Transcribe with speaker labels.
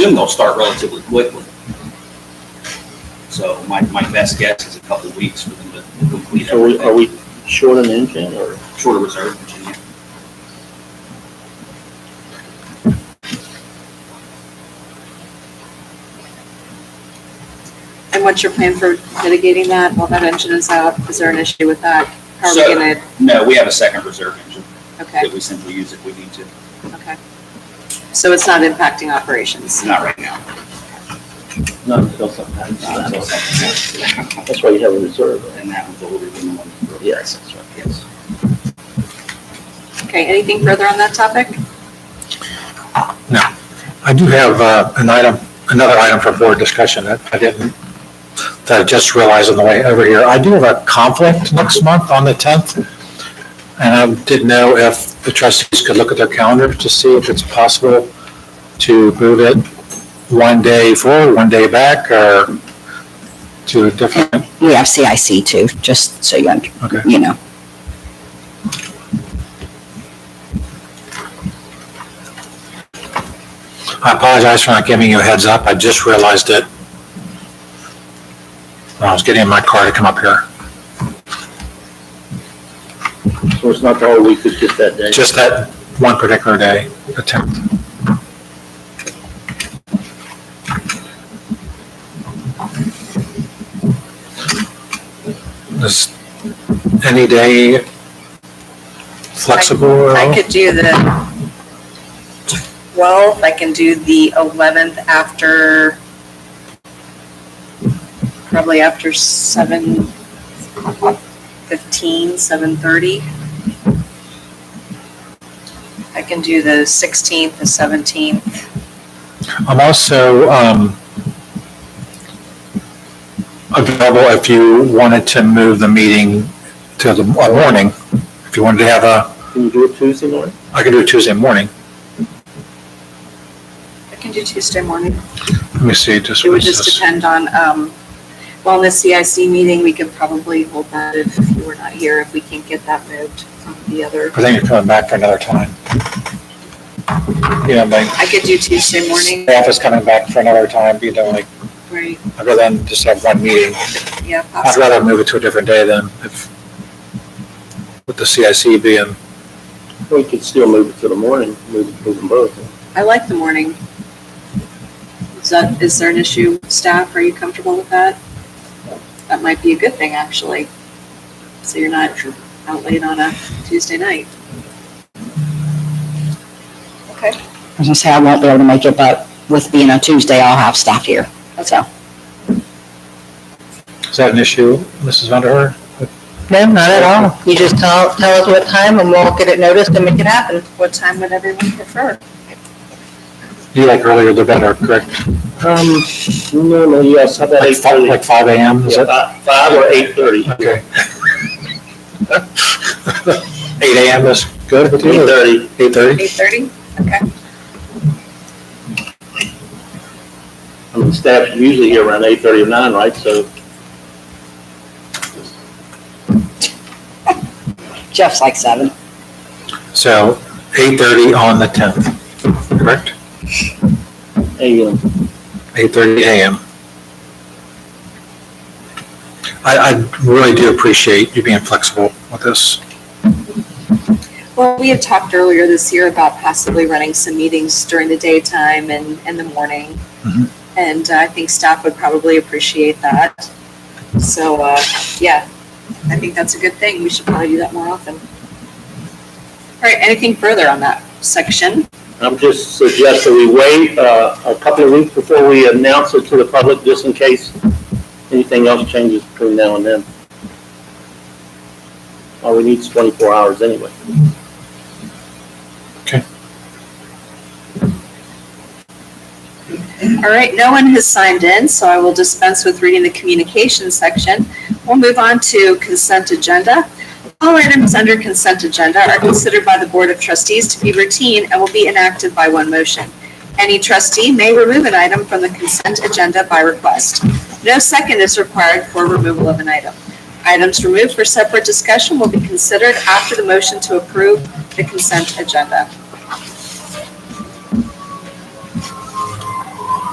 Speaker 1: assume they'll start relatively quickly. So my, my best guess is a couple of weeks for them to complete
Speaker 2: So we- are
Speaker 1: everything,
Speaker 2: we short an engine or?
Speaker 1: short of reserve Virginia.
Speaker 3: And what's your plan for mitigating that while that engine is out? Is there an issue with that? How are
Speaker 1: So-
Speaker 3: we gonna,
Speaker 1: No, we have a second reserve engine
Speaker 3: okay,
Speaker 1: that we simply use if we need to,
Speaker 3: okay. So it's not impacting operations?
Speaker 1: not right now.
Speaker 2: Not until sometime.
Speaker 1: Not until something happens.
Speaker 2: That's why you have a reserve. right?
Speaker 1: And that one's older than the one.
Speaker 2: Yes, that's right.
Speaker 1: Yes.
Speaker 3: Okay, anything further on that topic?
Speaker 4: I do have uh, an item, another item for board discussion that I didn't, that I just realized on the way over here. I do have a conflict next month on the 10th, and I didn't know if the trustees could look at their calendar to see if it's possible to move it one day forward, one day back, or to a different,
Speaker 5: We have CIC too, just so you, under-
Speaker 4: okay.
Speaker 5: you know.
Speaker 4: I apologize for not giving you a heads up. I just realized it when I was getting in my car to come up here.
Speaker 2: So it's not all we could get that day.
Speaker 4: Just that one particular day, the 10th. Is any day flexible at
Speaker 3: I
Speaker 4: all?
Speaker 3: could do the 12th, I can do the 11th after, probably after 7:15, 7:30. I can do the 16th, the 17th.
Speaker 4: I'm also um, available if you wanted to move the meeting to the uh, morning. If you wanted to have a,
Speaker 2: Can you do it Tuesday morning?
Speaker 4: I could do it Tuesday morning.
Speaker 3: I can do Tuesday morning.
Speaker 4: Let me see, just.
Speaker 3: It would
Speaker 4: what's
Speaker 3: just
Speaker 4: this?
Speaker 3: depend on, um, well, in the CIC meeting, we could probably hold that if you were not here, if we can get that moved from the other.
Speaker 4: I think you're coming back for another time. You know, my
Speaker 3: I could do Tuesday morning,
Speaker 4: staff is coming back for another time, you know, like,
Speaker 3: right?
Speaker 4: I'd rather than just have one meeting.
Speaker 3: Yeah,
Speaker 4: I'd
Speaker 3: possibly.
Speaker 4: rather move it to a different day than if, with the CIC being,
Speaker 2: We could still move it to the morning, move, move them both.
Speaker 3: I like the morning. Is that, is there an issue, with staff, are you comfortable with that? That might be a good thing, actually. So you're not out late on a Tuesday night. Okay,
Speaker 5: As I say, I won't be able to make it, but with being on Tuesday, I'll have staff here. So,
Speaker 4: is that an issue, Mrs. Vanderhorst?
Speaker 6: No, not at all. You just tell, tell us what time and we'll get it noticed and make it happen.
Speaker 3: what time would everyone prefer?
Speaker 4: You like earlier the better, correct?
Speaker 2: Um, no, no, yes, how about
Speaker 4: Like
Speaker 2: eight
Speaker 4: five,
Speaker 2: thirty?
Speaker 4: like five AM, is
Speaker 2: Yeah,
Speaker 4: it?
Speaker 2: fi- Five or eight thirty?
Speaker 4: Okay. Eight AM is good with
Speaker 2: Eight
Speaker 4: you?
Speaker 2: thirty.
Speaker 4: Eight thirty?
Speaker 3: Eight thirty? Okay.
Speaker 2: I mean, staff's usually here around eight thirty or nine, right? So
Speaker 5: Jeff's like seven.
Speaker 4: So eight thirty on the tenth, correct?
Speaker 2: AM.
Speaker 4: eight thirty AM. I, I really do appreciate you being flexible with this.
Speaker 3: Well, we had talked earlier this year about possibly running some meetings during the daytime and, and the morning.
Speaker 4: Mhm.
Speaker 3: And uh, I think staff would probably appreciate that. So, uh, yeah, I think that's a good thing. We should probably do that more often. All right, anything further on that section?
Speaker 2: I'm just suggesting we wait uh, a couple of weeks before we announce it to the public, just in case anything else changes between now and then. All we need is 24 hours anyway.
Speaker 3: All right, no one has signed in, so I will dispense with reading the communication section. We'll move on to consent agenda. All items under consent agenda are considered by the Board of Trustees to be routine and will be enacted by one motion. Any trustee may remove an item from the consent agenda by request. No second is required for removal of an item. Items removed for separate discussion will be considered after the motion to approve the consent agenda.